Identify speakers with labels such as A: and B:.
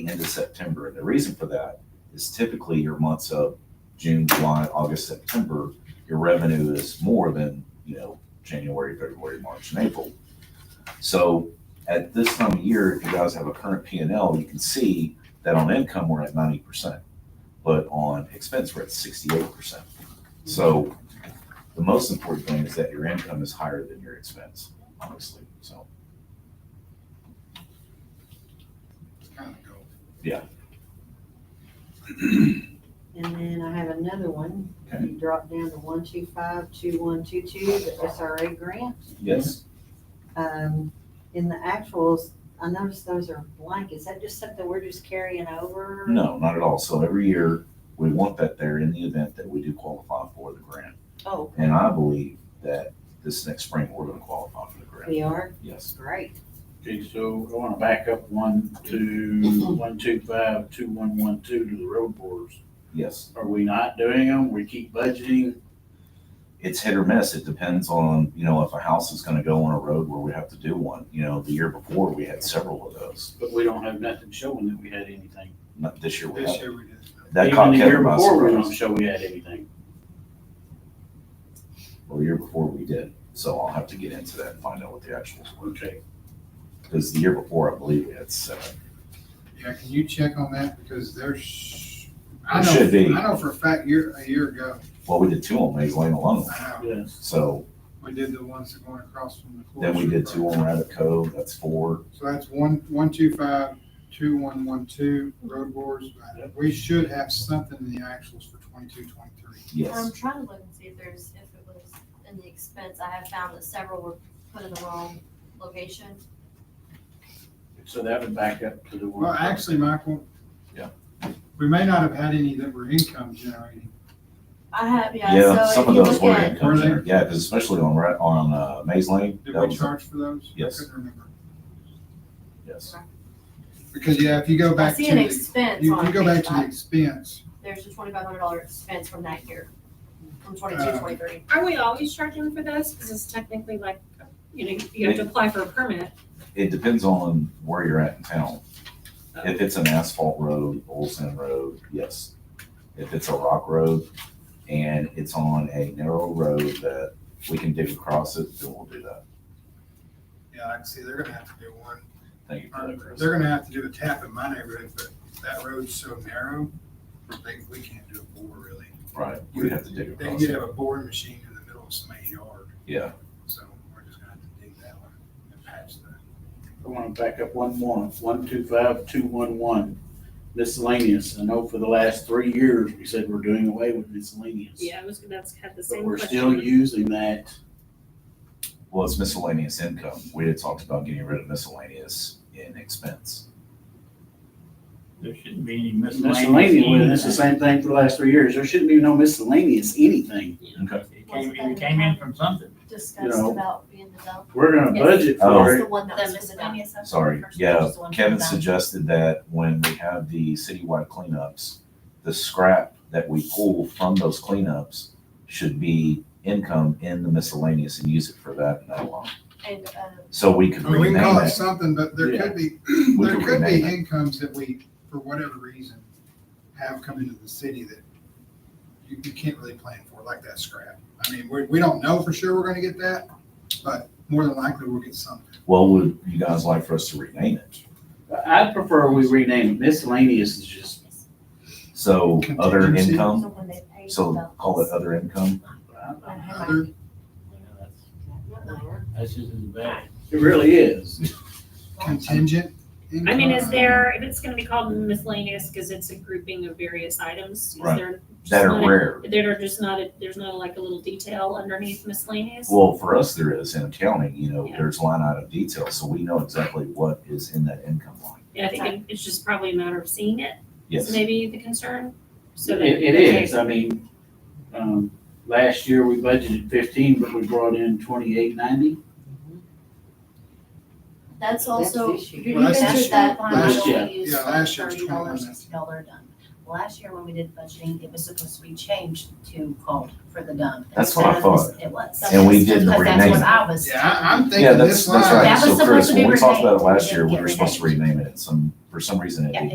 A: the end of September. And the reason for that is typically your months of June, July, August, September, your revenue is more than, you know, January, February, March, and April. So at this time of year, if you guys have a current P and L, you can see that on income, we're at ninety percent. But on expense, we're at sixty-eight percent. So the most important thing is that your income is higher than your expense, honestly, so.
B: kind of go.
C: And then I have another one.
A: Okay.
C: You drop down to one two five, two one two two, the SRA grant.
A: Yes,
C: Um, in the actuals, I noticed those are blank. Is that just something we're just carrying over?
A: no, not at all. So every year, we want that there in the event that we do qualify for the grant.
C: Oh,
A: And I believe that this next spring, we're gonna qualify for the grant.
C: we are?
A: Yes,
C: Great.
D: Okay, so I want to back up one, two, one, two, five, two, one, one, two to the road boards.
A: yes.
D: Are we not doing them? We keep budgeting?
A: it's hit or miss. It depends on, you know, if a house is gonna go on a road where we have to do one. You know, the year before, we had several of those.
D: But we don't have nothing showing that we had anything.
A: Not this year we
B: This
A: had.
B: year we did.
A: That caught
D: Even the year
A: Kevin by
D: before, we don't
A: surprise.
D: show we had anything.
A: Well, the year before we did. So I'll have to get into that and find out what the actuals were.
D: Okay,
A: Because the year before, I believe we had seven.
B: Yeah, can you check on that? Because there's, I
A: It
B: know,
A: should be.
B: I know for a fact, year, a year ago,
A: Well, we did two on Maze Lane alone.
B: I know,
D: yes.
A: So
B: we did the ones that going across from the.
A: then we did two on Rabbit Cove. That's four.
B: So that's one, one, two, five, two, one, one, two, road boards. We should have something in the actuals for twenty-two, twenty-three.
A: Yes.
E: I'm trying to look and see if there's, if it was in the expense, I have found that several were put in the wrong location.
D: So that would back up to the one.
B: Well, actually, Michael.
A: Yeah.
B: We may not have had any that were income generating.
E: I have, yeah,
A: Yeah,
E: so if
A: some of
E: you
A: those
E: look
A: were
E: at,
A: income.
B: Were they?
A: generated. Yeah, because especially on, Ra- on, uh, Maze Lane.
B: Did
A: that
B: we
A: was-
B: charge for those?
A: Yes.
B: I couldn't remember.
A: Yes.
B: Because, yeah, if you go
E: I
B: back to,
E: see an
B: the-
E: expense
B: you
E: on
B: you go back
E: page
B: to the
E: five,
B: expense,
E: there's a twenty-five hundred dollar expense from that year, from
B: Uh,
E: twenty-two, twenty-three.
F: Are we always charging for this? Because it's technically like, you know, you have to apply for a permit.
A: It depends on where you're at in town. If it's an asphalt road, Olson Road, yes. If it's a rock road and it's on a narrow road that we can dig across it, then we'll do that.
B: yeah, I can see they're gonna have to do one.
A: Thank you for that, Chris.
B: They're gonna have to do a tap in my neighborhood, but that road's so narrow, they, we can't do a bore really.
A: Right, we'd have to dig
B: They
A: across
B: could
A: it.
B: have a boring machine in the middle of somebody's yard,
A: Yeah,
B: so we're just gonna have to dig that one and patch that.
D: I want to back up one more, one, two, five, two, one, one. Miscellaneous. I know for the last three years, we said we're doing away with miscellaneous.
F: Yeah, I was, that's had the
D: But
F: same
D: we're still
F: question.
D: using that.
A: well, it's miscellaneous income. We had talked about getting rid of miscellaneous in expense.
G: There shouldn't be any
D: Miscellaneous, well,
G: miscellaneous.
D: that's the same thing for the last three years. There shouldn't be no miscellaneous anything.
A: Okay.
G: It came, it came in from something.
E: Discussed
D: know.
E: about being developed,
D: We're gonna
E: Yes.
D: budget
A: Oh.
D: for
E: that's
D: it.
E: the one that
F: The
E: was miscellaneous.
A: Sorry, yeah, Kevin suggested that when we have the citywide cleanups, the scrap that we pull from those cleanups should be income in the miscellaneous and use it for that and that alone.
E: And, uh,
A: So we could
B: I mean, we
A: rename
B: can call it
A: it.
B: something, but there
D: Yeah.
B: could be,
A: We
B: there
A: could
B: could be
A: rename it.
B: incomes that we, for whatever reason, have come into the city that you, you can't really plan for, like that scrap. I mean, we, we don't know for sure we're gonna get that, but more than likely we'll get something.
A: What would you guys like for us to rename it?
D: I prefer we rename it. miscellaneous is just,
A: So other
B: Contingency?
A: income,
E: someone that paid
A: Um, so
E: the-
A: call it other income.
D: I-
E: I have my-
B: Other,
G: That's just as bad.
D: it really is.
B: contingent income.
F: I mean, is there, if it's gonna be called miscellaneous, because it's a grouping of various items, is
A: Right.
F: there? just
A: That
F: not
A: are
F: a-
A: rare.
F: That are just not, a- there's not like a little detail underneath miscellaneous?
A: Well, for us, there is in accounting, you know,
F: Yeah.
A: there's line item detail, so we know exactly what is in that income line.
F: Yeah, I think it- it's just probably a matter of seeing it,
A: Yes.
F: is maybe the concern. So
D: It,
F: that-
D: it is. I mean, um, last year we budgeted fifteen, but we brought in twenty-eight ninety.
E: That's also,
C: That's the issue.
E: did you
B: Well, that's
E: measure
B: this
E: that
B: year.
E: line item
D: Last
E: we
D: year.
E: used
B: Yeah,
E: from
B: last year's
E: thirty dollars
B: twenty-one.
E: to dollar done? Last year when we did budgeting, it was supposed to be changed to called for the done.
A: That's what I
E: Instead of- It was.
A: And we didn't
E: Because that's
A: rename
E: what
A: it.
E: I was.
B: Yeah, I, I'm
A: Yeah,
B: thinking
A: that's,
B: this line.
A: that's right.
E: That was
A: So
E: supposed
A: Chris,
E: to be
A: when we talked about
E: renamed.
A: it last year, we
E: It
A: were
E: didn't
A: supposed to
E: get
A: rename it. Some, for some reason, it
E: Yeah,
A: didn't